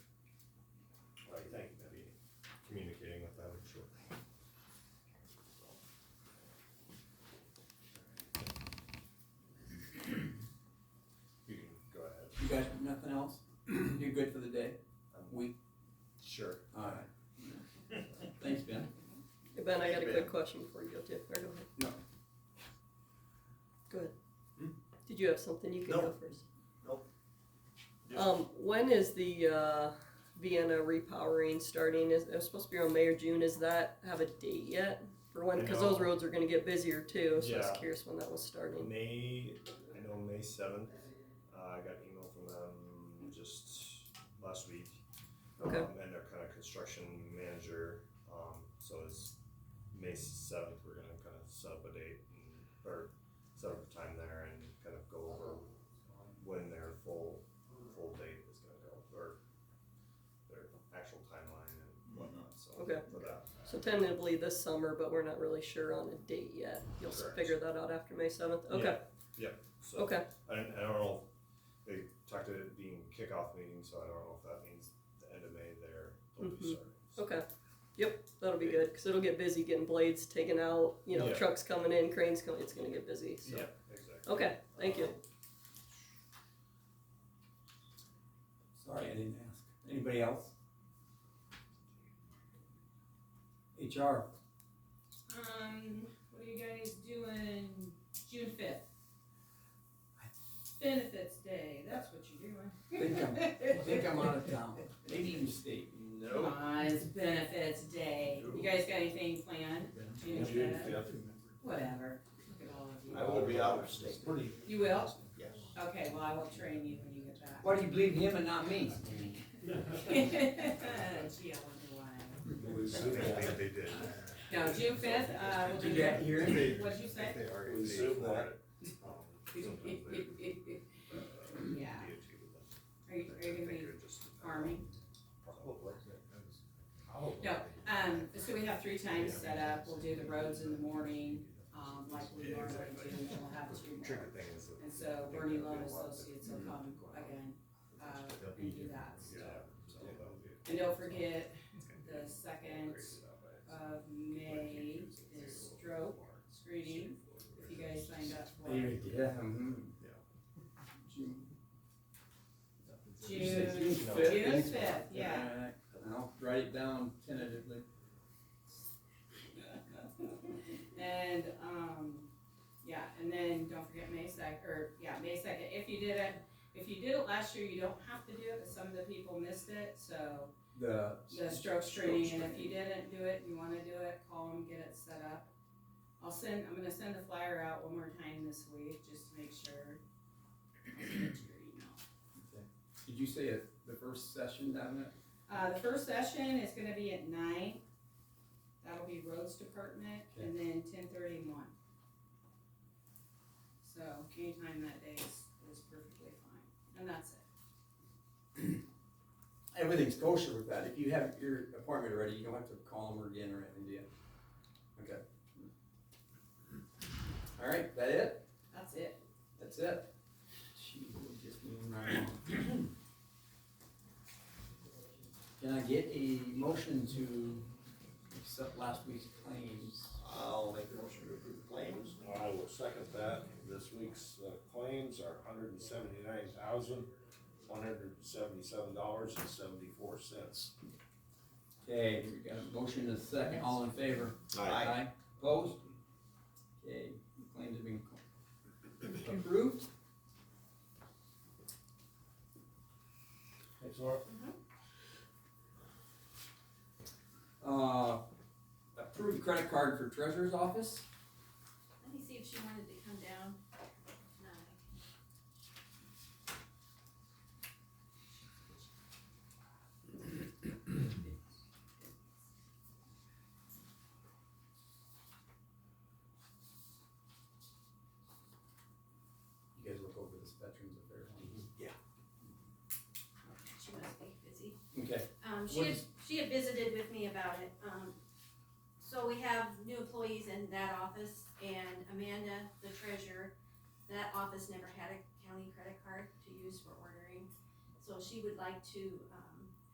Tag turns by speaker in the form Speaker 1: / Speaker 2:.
Speaker 1: Ben, I got a
Speaker 2: Ben.
Speaker 1: quick question before you go to. Or go ahead.
Speaker 2: No.
Speaker 1: Go ahead.
Speaker 2: Hmm?
Speaker 1: Did you have something? You can
Speaker 2: No.
Speaker 1: go first.
Speaker 2: Nope. Just-
Speaker 1: Um, when is the uh, Vienna repowering starting? Is it was supposed to be around May or June? Is that have a date yet for when? Because those
Speaker 3: No.
Speaker 1: roads are going to get busier too. So I was
Speaker 3: Yeah.
Speaker 1: curious when that was starting.
Speaker 3: May, I know May seventh, uh, I got an email from them just last week.
Speaker 1: Okay.
Speaker 3: Um, and their kind of construction manager, um, so it's May seventh, we're gonna kind of set up a date and, or set up a time there and kind of go over when their full, full date is gonna go, or their actual timeline and whatnot, so.
Speaker 1: Okay.
Speaker 3: For that.
Speaker 1: So tentatively this summer, but we're not really sure on a date yet. You'll s-
Speaker 3: Correct.
Speaker 1: figure that out after May seventh. Okay.
Speaker 3: Yeah, Yep, so.
Speaker 1: Okay.
Speaker 3: I don't, I don't know, if they talked to it being kickoff meeting, so I don't know if that means the end of May there, they'll
Speaker 1: Mhm.
Speaker 3: be starting. so.
Speaker 1: Okay. Yep. That'll be good because it'll get busy getting blades taken out. You know,
Speaker 3: Yeah.
Speaker 1: trucks coming in, cranes coming. It's going to get busy. So.
Speaker 3: Yeah, exactly.
Speaker 1: Okay. Thank you.
Speaker 4: Sorry, I didn't ask. Anybody else? HR,
Speaker 5: Um, what are you guys doing June fifth? Benefits Day, that's what you're doing.
Speaker 4: Think I think I'm out of town, maybe even state.
Speaker 5: Come
Speaker 2: No.
Speaker 5: on, it's Benefits Day. You guys got anything planned? June
Speaker 2: June
Speaker 5: fifth? Uh,
Speaker 2: fifth.
Speaker 5: Whatever, look at all of you.
Speaker 2: I will be out of state.
Speaker 5: You will?
Speaker 2: Yes.
Speaker 5: Okay, well, I will train you when you get back.
Speaker 4: Why do you believe him and not me?
Speaker 5: Gee, I wonder why.
Speaker 3: I think they did.
Speaker 5: No, June fifth, uh, we'll do that.
Speaker 4: here?
Speaker 5: What'd you say?
Speaker 3: They already
Speaker 2: We
Speaker 3: paid
Speaker 2: zoom
Speaker 3: for it.
Speaker 2: that.
Speaker 3: Um, sometimes they, uh,
Speaker 5: Yeah.
Speaker 3: DOT would let-
Speaker 5: Are
Speaker 3: I
Speaker 5: you, are you gonna
Speaker 3: think
Speaker 5: be
Speaker 3: they're just-
Speaker 5: farming?
Speaker 2: Probably.
Speaker 5: No, Um, so we have three times set up, we'll do the roads in the morning, um, like we normally do, and we'll have two
Speaker 3: The
Speaker 5: more.
Speaker 3: tricky thing is that.
Speaker 5: And so Bernie Lowe and Associates will come again, uh, and do that, so.
Speaker 3: Yeah, so that would be.
Speaker 5: And don't forget,
Speaker 3: it's gonna be
Speaker 5: the second
Speaker 3: crazy that way.
Speaker 5: of May is stroke screening, if you guys signed up for it.
Speaker 4: Yeah. June
Speaker 5: June, June
Speaker 4: June
Speaker 5: fifth, yeah.
Speaker 4: I'll write it down tentatively.
Speaker 5: And, um, yeah, and then don't forget May sec, or, yeah, May second, if you did it, if you did it last year, you don't have to do it, but some of the people missed it, so.
Speaker 4: The.
Speaker 5: The stroke training, and if you didn't do it, and you wanna do it, call them, get it set up. I'll send, I'm gonna send the flyer out one more time this week, just to make sure. I'll send it to your email.
Speaker 4: Did you say it, the first session down there?
Speaker 5: Uh, the first session is gonna be at nine, that'll be roads department, and then ten thirty and one. So anytime that day is, is perfectly fine, and that's it.
Speaker 4: Everything's kosher with that. If you have your appointment already, you don't have to call them again or anything, do you? Okay. All right, that it?
Speaker 5: That's it.
Speaker 4: That's it. She will just move right on. Can I get a motion to accept last week's claims?
Speaker 2: I'll make a motion to approve the claims.
Speaker 6: I will second that. This week's uh, claims are hundred and seventy-nine thousand, one hundred and seventy-seven dollars and seventy-four cents.
Speaker 4: Okay, we got a motion and a second, all in favor?
Speaker 2: Aye.
Speaker 4: Opposed? Okay, claims have been co- approved.
Speaker 6: Thanks, Laura.
Speaker 4: Uh, approved credit card for treasurer's office.
Speaker 7: Let me see if she wanted to come down. No.
Speaker 4: You guys look over this veterans affairs
Speaker 7: She must be busy.
Speaker 4: one. Okay,
Speaker 7: Um, she
Speaker 4: What
Speaker 7: had,
Speaker 4: is-
Speaker 7: she had visited with me about it, um, so we have new employees in that office, and Amanda, the treasurer, that office never had a county credit card to use for ordering, so she would like to, uh,